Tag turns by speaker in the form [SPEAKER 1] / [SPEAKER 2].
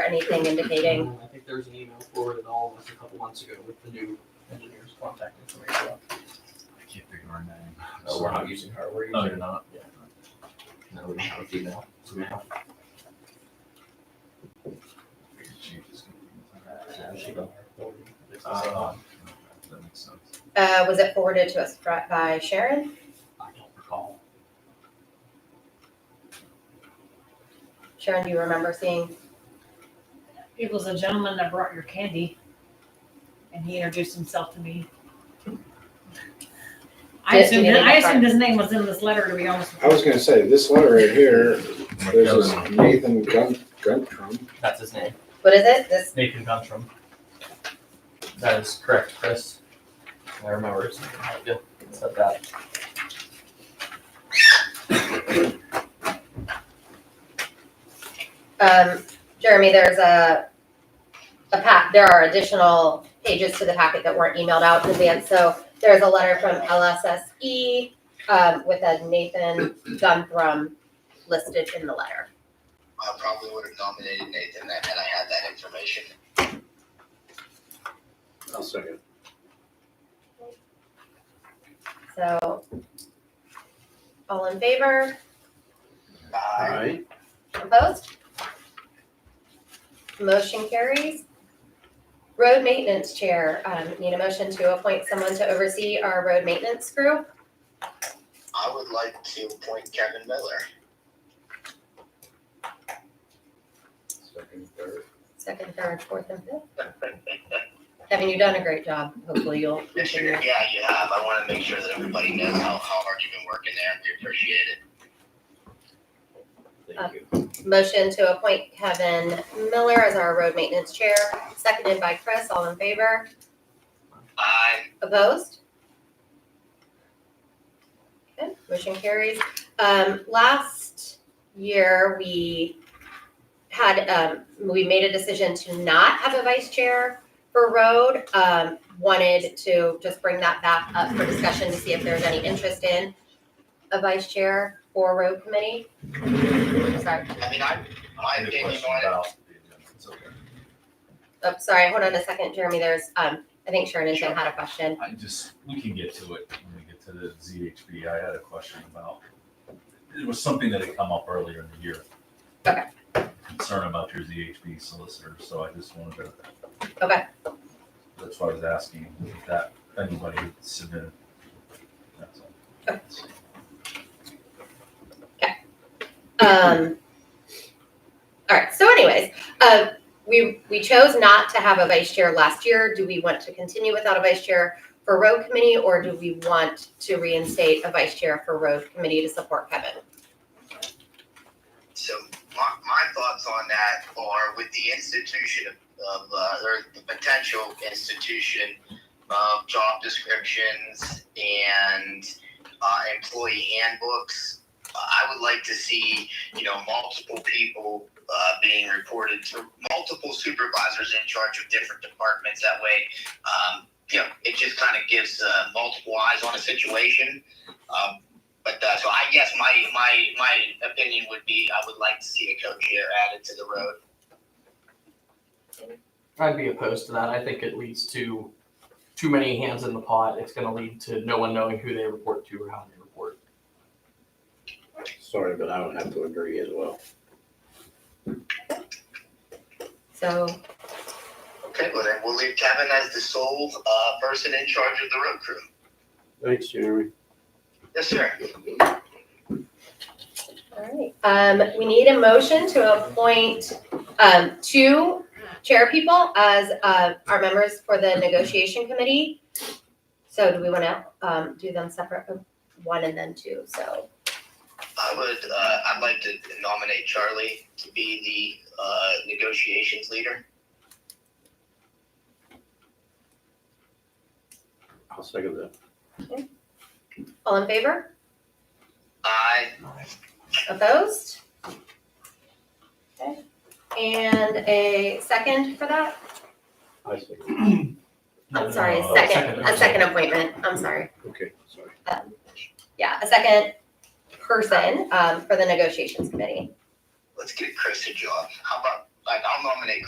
[SPEAKER 1] anything indicating,
[SPEAKER 2] I think there was an email forwarded all of us a couple months ago with the new engineer's contact information.
[SPEAKER 3] I can't think of her name.
[SPEAKER 4] No, Oh, we're not using her,
[SPEAKER 2] Oh,
[SPEAKER 4] we're
[SPEAKER 3] No,
[SPEAKER 4] using,
[SPEAKER 3] you're not.
[SPEAKER 4] no, we don't have a female. She got her forwarded. It's the same one.
[SPEAKER 3] Uh, That makes sense.
[SPEAKER 1] uh, was it forwarded to us fri- by Sharon?
[SPEAKER 2] I don't recall.
[SPEAKER 1] Sharon, do you remember seeing?
[SPEAKER 5] It was a gentleman that brought your candy, and he introduced himself to me. I
[SPEAKER 1] Did-
[SPEAKER 5] assumed,
[SPEAKER 1] did he
[SPEAKER 5] I
[SPEAKER 1] get
[SPEAKER 5] assumed his name was in this letter, to be honest with
[SPEAKER 6] I
[SPEAKER 5] you.
[SPEAKER 6] was gonna say, this letter right here, there's this
[SPEAKER 3] McKellen.
[SPEAKER 6] Nathan Gun, Guntrum.
[SPEAKER 2] That's his name.
[SPEAKER 1] What is it? This
[SPEAKER 2] Nathan Guntram. That is correct, Chris. I remember his name. Yeah, it's at that.
[SPEAKER 1] Um, Jeremy, there's a, a pack, there are additional pages to the packet that weren't emailed out in advance. So there's a letter from LSSE, um, with a Nathan Guntram listed in the letter.
[SPEAKER 7] I probably would have nominated Nathan that had I had that information.
[SPEAKER 6] I'll second.
[SPEAKER 1] So all in favor,
[SPEAKER 7] I
[SPEAKER 1] opposed? Motion carries. Road maintenance chair, um, need a motion to appoint someone to oversee our road maintenance group?
[SPEAKER 7] I would like to appoint Kevin Miller.
[SPEAKER 6] Second, third.
[SPEAKER 1] second, third, fourth, and fifth. Kevin, you've done a great job. Hopefully you'll
[SPEAKER 7] Yeah, you
[SPEAKER 1] continue.
[SPEAKER 7] have. I want to make sure that everybody knows how, how hard you've been working there. We appreciate it.
[SPEAKER 1] Uh,
[SPEAKER 6] Thank you.
[SPEAKER 1] Motion to appoint Kevin Miller as our road maintenance chair, seconded by Chris. All in favor?
[SPEAKER 7] I
[SPEAKER 1] Opposed? Okay, motion carries. Um, last year, we had, um, we made a decision to not have a vice chair for road. Um, wanted to just bring that back up for discussion to see if there's any interest in a vice chair for road committee. Sorry,
[SPEAKER 7] I mean, I, my
[SPEAKER 3] Any
[SPEAKER 7] opinion
[SPEAKER 3] question
[SPEAKER 7] on it,
[SPEAKER 3] about the agenda? It's okay.
[SPEAKER 1] oh, sorry, hold on a second, Jeremy, there's, um, I think Sharon and Tim had a question.
[SPEAKER 3] I just, we can get to it when we get to the ZHB. I had a question about, it was something that had come up earlier in the year.
[SPEAKER 1] Okay.
[SPEAKER 3] Concern about your ZHB solicitor, so I just wanted to.
[SPEAKER 1] Okay.
[SPEAKER 3] That's why I was asking if that, anybody submitted. That's all.
[SPEAKER 1] Um, all right. So, anyways, uh, we we chose not to have a vice chair last year. Do we want to continue without a vice chair for road committee, or do we want to reinstate a vice chair for road committee to support Kevin?
[SPEAKER 7] so my, my thoughts on that are with the institution of, of, uh, or the potential institution of job descriptions and, uh, employee handbooks. I would like to see, you know, multiple people, uh, being reported to, multiple supervisors in charge of different departments. That way, um, you know, it just kind of gives, uh, multiple eyes on a situation. Um, but uh, so I guess my my my opinion would be I would like to see a co-chair added to the road.
[SPEAKER 2] I'd be opposed to that. I think it leads to too many hands in the pot. It's gonna lead to no one knowing who they report to or how they report.
[SPEAKER 6] Sorry, but I would have to agree as well.
[SPEAKER 1] So,
[SPEAKER 7] Okay, well then we'll leave Kevin as the sole uh, person in charge of the road crew.
[SPEAKER 6] Thanks, Jeremy.
[SPEAKER 7] Yes, sir.
[SPEAKER 1] all right. Um, we need a motion to appoint um, two chair people as uh, our members for the negotiation committee. So, do we want to um, do them separate, one and then two? So.
[SPEAKER 7] I would uh, I'd like to nominate Charlie to be the uh, negotiations leader.
[SPEAKER 6] I'll second that.
[SPEAKER 1] All in favor?
[SPEAKER 7] I
[SPEAKER 1] Opposed? Okay. And a second for that?
[SPEAKER 6] I second.
[SPEAKER 2] No, no,
[SPEAKER 1] I'm sorry,
[SPEAKER 2] no,
[SPEAKER 1] a
[SPEAKER 2] no,
[SPEAKER 1] second, a second appointment, I'm sorry. Um,
[SPEAKER 6] Okay, sorry.
[SPEAKER 1] Yeah, a second person um, for the negotiations committee.
[SPEAKER 7] let's get Chris a job. How about like I'll nominate